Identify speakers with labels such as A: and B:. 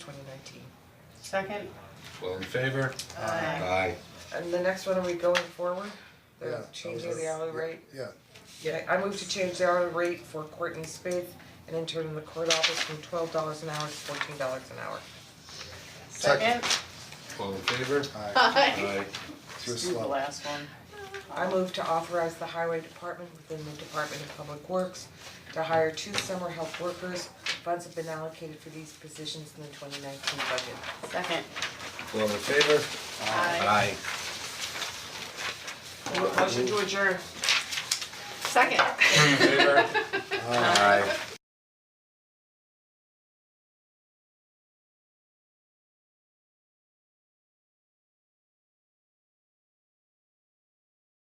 A: 2019.
B: Second?
C: All in favor?
B: Aye.
C: Aye.
A: And the next one, are we going forward?
D: Yeah,
A: They're
D: that
A: changing
D: was
A: the
D: a-
A: hourly rate?
D: Yeah,
A: Yeah, I move to change the hourly rate for Courtney Spaith, an intern in the court office, from twelve dollars an hour to fourteen dollars an hour.
D: Second.
C: All in favor?
D: alright,
C: Aye.
D: too
B: Do the
D: slow.
B: last one.
A: I move to authorize the highway department within the Department of Public Works to hire two summer help workers. Funds have been allocated for these positions in the twenty nineteen budget.
B: Second.
C: All in favor? Aye.
A: Mo- Motion to adjourn.
B: Second.
C: All in favor? Aye.